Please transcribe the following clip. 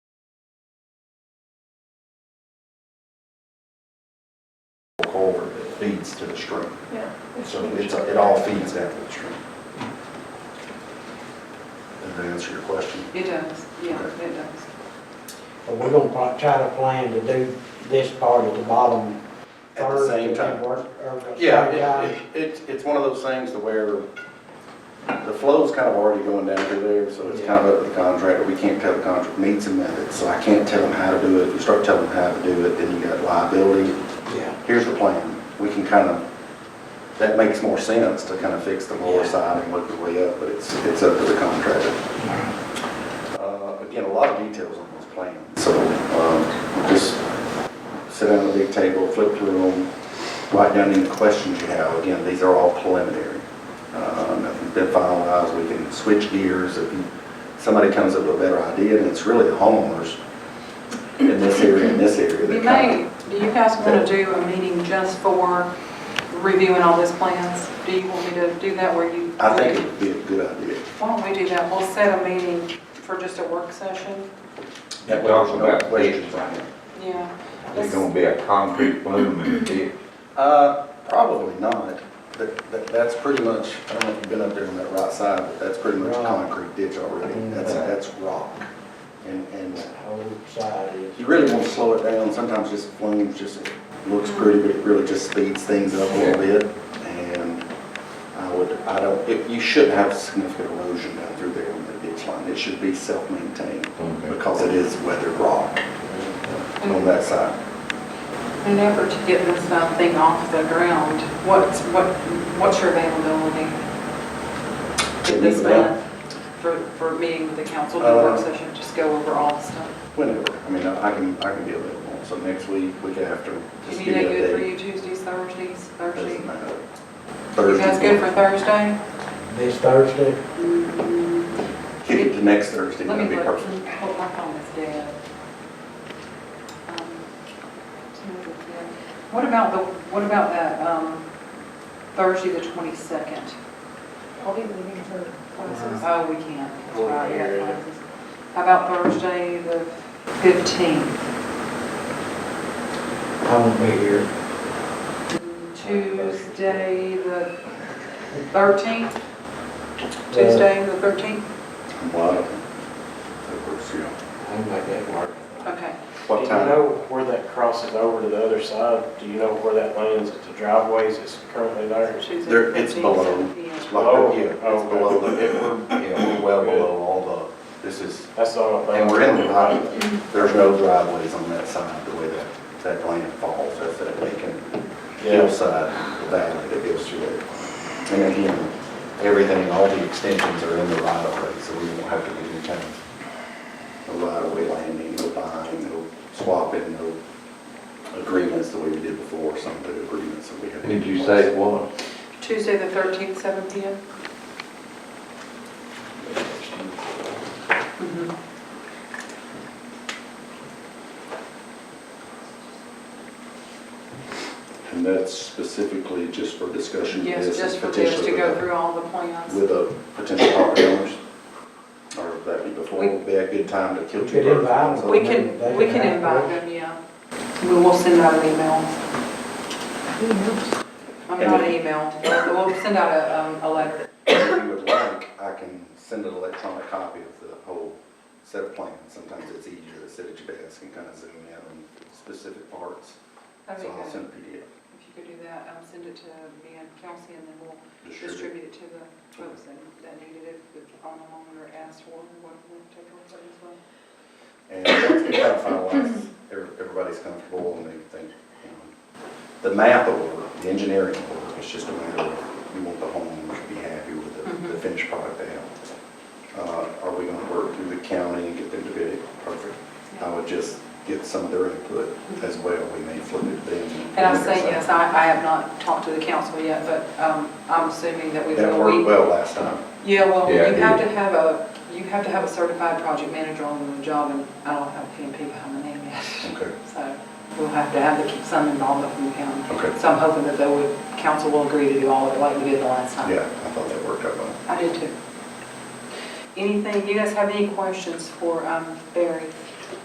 culvert that feeds to the stream. yeah. So it's, it all feeds down to the stream. Did that answer your question? It does, yeah, it does. But we're gonna pro- try to plan to do this part at the bottom. At the third, same if it time. work- or if it Yeah, work it- it- it's, it's one of those things to where the flow's kind of already going down through there, so it's kind of up to the contractor. We can't tell the contractor needs and methods, so I can't tell them how to do it. You start telling them how to do it, then you got liability. out, Yeah, Here's the plan. We can kind of, that makes more sense to kind of fix the lower side and work your way up, but it's, it's up to the contractor. Uh, Again, a lot of details on this plan, so um, just sit down at a big table, flip through them, write down any questions you have. Again, these are all preliminary. Uh, Nothing's been finalized, we can switch gears if you- somebody comes up with a better idea, and it's really the homeowners in this area, in this area. You that kind of- may, do you guys want to do a meeting just for reviewing all these plans? Do you want me to do that where you? I think it would be a good idea. Why don't we do that? We'll set a meeting for just a work session. That way Talk there's no about questions this. on it. Yeah. There's gonna be a concrete bloom in the ditch. Uh, probably not. That, that, that's pretty much, I don't know if you've been up there on that right side, but that's pretty much a Rock. concrete ditch already. That's, Mhm. that's rock. And, and that whole side is. you really want to slow it down. Sometimes just flumes, just it looks pretty, but it really just speeds things up a little bit. And I would, I don't, it- you shouldn't have significant erosion down through there on the ditch line. It should be self-maintained because it is weathered rock on that side. In an effort to get this uh, thing off the ground, what's, what, what's your availability? This month, for, for a meeting with the council, the work Uh, session, just go over all the stuff. Whenever, I mean, I I can, I can be available, so next week, week after. Is just any give me day a good for date. you, Tuesdays, Thursdays, Thursday? Doesn't matter. You guys good for Thursday, Thursday? This Thursday, Mm, kick it to next Thursday, Let that'd me be look, perfect. Hold my phone is dead. Um, What about the, what about that, um, Thursday the twenty-second? I'll be leaving for classes. Oh, we can't. That's right, yeah, classes. How about Thursday the fifteenth? I won't be here. Tuesday the thirteenth? Uh, Tuesday the thirteenth? Wow. That works, yeah. I'll make that work. Okay. What Do you time? know where that crosses over to the other side? Do you know where that lands, at the driveways that's currently there? Tuesday the There- it's 15th, below. 7 p.m. Like, Oh, yeah, it's oh, below, the- it- we're, yeah, we're well below all the, this is, That's the only thing. and we're in the right, of way. there's no driveways on that side, the way that, that land falls, that's that vacant Yeah. hillside valley that goes through there. And again, everything, all the extensions are in the right of way, so we won't have to do anything. The right of way landing, no buying, no swapping, no agreements the way we did before, some of the agreements that we had. Did you say it was? Tuesday the thirteenth, seven P M? Mm-hmm. And that's specifically just for discussion. Yes, This is just for this, to potentially go with a- through all the plans. With a potential property owners, or that'd be before, We- would be a good time to kill We two could birds. with invite one them. stone. We can, we can invite them, yeah. We will send out an email. I'm not an email, we'll we'll send out a, um, a letter. If you would like, I can send an electronic copy of the whole set of plans. Sometimes it's easier to sit at your desk and kind of zoom in on specific parts. That'd be So I'll good. send a PDF. If you could do that, um, send it to me and Kelsey, and then we'll distribute. distribute it to the folks that that needed it, if on the moment or asked for, what we'll take on that as well. And once we kind of finalize, every- everybody's comfortable and they think, you know, the map of work, the engineering of work, it's just a matter of, you want the homeowner to be happy with the- the Mhm. finished product they have. Uh, Are we gonna work through the county and get them to bid it? Perfect. I would just get some of their input as well. We may flip it then. Mm-hmm. And I say, yes, I, I have not talked to the council yet, but, um, I'm assuming that we That will. We- worked well last time. Yeah, well, Yeah, you it have is. to have a, you have to have a certified project manager on the job, and I don't have P and P behind my name yet. Okay. So we'll have to have the- some involvement from the county. Okay. So I'm hoping that the would- council will agree to do all of it like we did the last time. Yeah, I thought that worked out well. I did too. Anything, you guys have any questions for um, Barry?